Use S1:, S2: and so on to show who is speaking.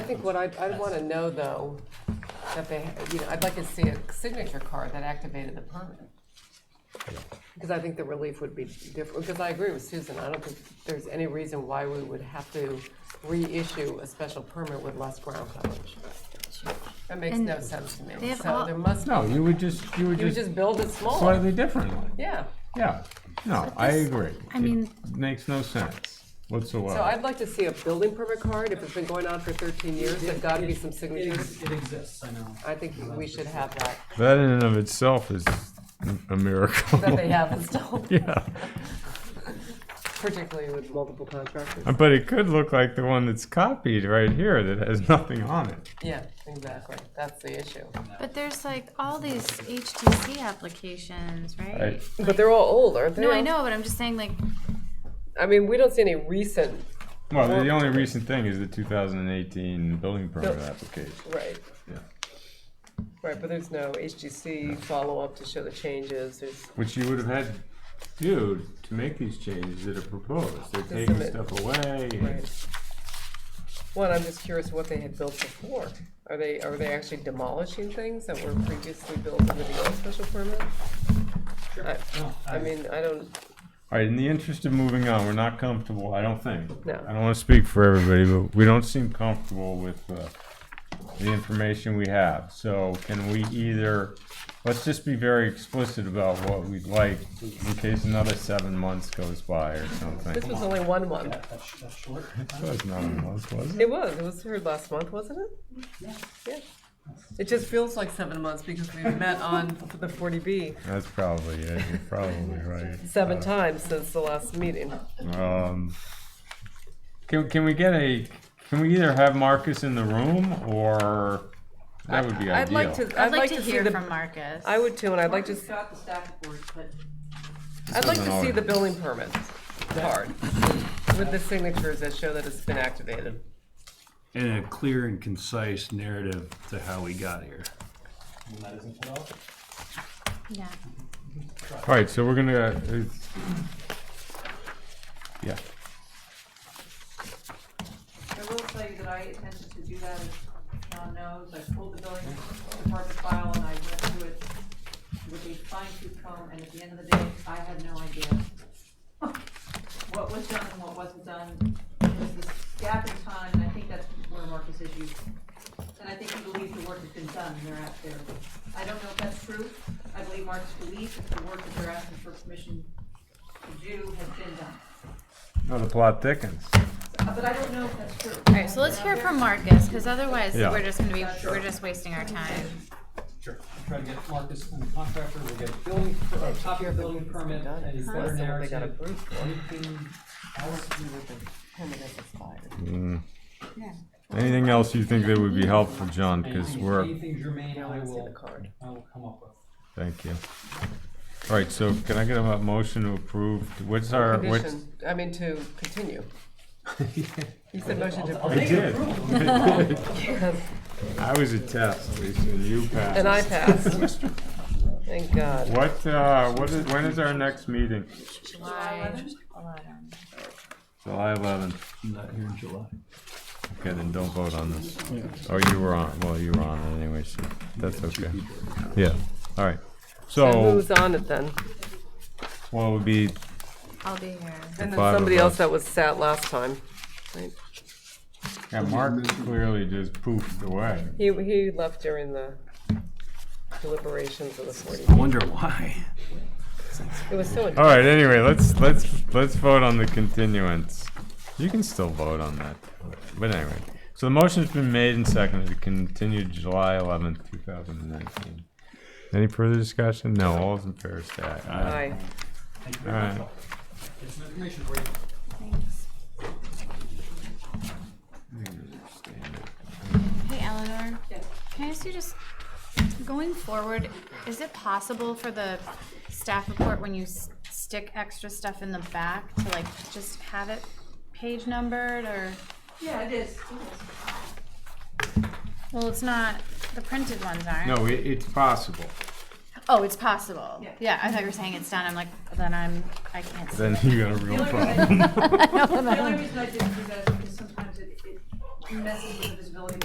S1: think what I'd, I'd wanna know though, that they, you know, I'd like to see a signature card that activated the permit. Because I think the relief would be different, because I agree with Susan, I don't think there's any reason why we would have to reissue a special permit with less ground coverage. That makes no sense to
S2: they
S1: me,
S2: have
S1: so
S2: all-
S1: there must,
S3: No, you would just, you would
S1: you would
S3: just
S1: just build it smaller,
S3: slightly differently.
S1: yeah.
S3: Yeah, no, I agree.
S2: I mean-
S3: It Makes no sense
S1: So
S3: whatsoever.
S1: I'd like to see a building permit card, if it's been going on for thirteen years, there's gotta be some
S4: It
S1: signatures.
S4: ex- it exists, I know.
S1: I think we should have that,
S3: That in and of itself is a
S1: that
S3: miracle.
S1: they have installed.
S3: Yeah,
S1: particularly with multiple contractors.
S3: but it could look like the one that's copied right here that has nothing on it.
S1: Yeah, exactly. That's the issue.
S2: But there's like all these HTC applications, right?
S3: Right.
S2: Like-
S1: But they're all old, aren't they?
S2: No, I know, but I'm just saying like,
S1: I mean, we don't see any recent,
S3: Well, the only recent thing is the two thousand and eighteen building permit application.
S1: right,
S3: Yeah.
S1: right, but there's no HGC follow-up to show the changes. There's,
S3: Which you would have had to do to make these changes that are proposed. They're taking
S1: submit.
S3: stuff away. and-
S1: right. One, I'm just curious what they had built before. Are they, are they actually demolishing things that were previously built under the old special permit? I,
S4: No,
S1: I mean, I don't,
S3: All right, in the interest of moving on, we're not comfortable, I don't think.
S1: No.
S3: I don't want to speak for everybody, but we don't seem comfortable with uh, the information we have. So can we either, let's just be very explicit about what we'd like in case another seven months goes by or
S1: this
S3: something.
S1: was only one month.
S4: that- That's, that's short.
S3: That was not a month, was it?
S1: It was. It was heard last month, wasn't it?
S4: Yeah.
S1: Yeah. It just feels like seven months because we met on the 40B
S3: That's probably it, you're probably right.
S1: seven times since the last meeting.
S3: Um, can, can we get a, can we either have Marcus in the room or, that would be ideal.
S1: I'd like to.
S2: I'd like to hear from Marcus.
S1: I would too, and I'd like to. s-
S5: Got the staff report, but
S1: I'd like
S3: isn't
S1: to see
S3: ours.
S1: the building permit card with the signatures that show that it's been activated.
S6: and a clear and concise narrative to how we got here.
S4: And that isn't cut off.
S2: Yeah.
S3: All right, so we're gonna, uh, it's- yeah,
S5: I will tell you that I intended to do that, as John knows, I pulled the building department file and I went through it with a fine tooth comb, and at the end of the day, I had no idea what was done and what wasn't done. It was this gap in time, and I think that's where Marcus is you, and I think he believes the work has been done, and they're out there. I don't know if that's true, I believe Marcus believes that the work that they're asking for permission to do has been done,
S3: oh, the plot thickens.
S5: Uh, but I don't know if that's true.
S2: All right, so let's hear from Marcus, because otherwise
S3: Yeah.
S2: we're just gonna be, we're just wasting our time.
S4: Sure. I'll Try to get Marcus and the contractor, we'll get a building, per- a copy of building permit, a better
S1: They got
S4: narrative.
S1: approved for it.
S4: Anything else to do with the
S1: Permit is expired.
S3: Mm. Anything else you think that would be helpful, John, because
S4: anything-
S3: we're,
S4: Anything germane,
S1: I
S4: I
S1: wanna see the
S4: will,
S1: card.
S4: I will come up with.
S3: thank you. All right, so can I get a motion to approve, what's our, what's?
S1: Condition, I mean, to continue. You said motion to
S3: I
S1: approve,
S3: did. I was a test, Lisa, and you passed.
S1: and I passed. Thank God.
S3: What, uh, what is, when is our next meeting?
S2: July.
S3: July eleventh.
S6: I'm not here in July.
S3: Okay, then don't vote on this. Oh, you were on, well, you were on it anyway, so that's okay. Yeah, all right.
S1: Who
S3: So,
S1: was on it then?
S3: what would be
S2: I'll be here.
S1: And then
S3: Five of
S1: somebody else
S3: us.
S1: that was sat last time. right?
S3: Yeah, Mark clearly just poofed away.
S1: He, he left during the deliberations of the forty.
S6: I wonder why.
S1: It was so,
S3: All right. Anyway, let's let's let's vote on the continuance. You can still vote on that, but anyway. So the motion's been made and seconded to continue July eleventh, two thousand and nineteen. Any further discussion? No. All those in favor say aye.
S1: I,
S3: All right.
S4: Get some information for you.
S2: Hey Eleanor, can I ask you just, going forward, is it possible for the staff report when you s- stick extra stuff in the back to like just have it page numbered or?
S5: Yeah, it is, it is.
S2: Well, it's not, the printed ones aren't.
S3: No, it, it's possible.
S2: Oh, it's possible.
S5: Yeah.
S2: Yeah, I thought you were saying it's done. I'm like, then I'm, I can't. see
S3: Then
S2: it.
S3: you got a real problem.
S2: I know, then
S5: The only
S2: I'm-
S5: reason I didn't do that is because sometimes it, it messes with the visibility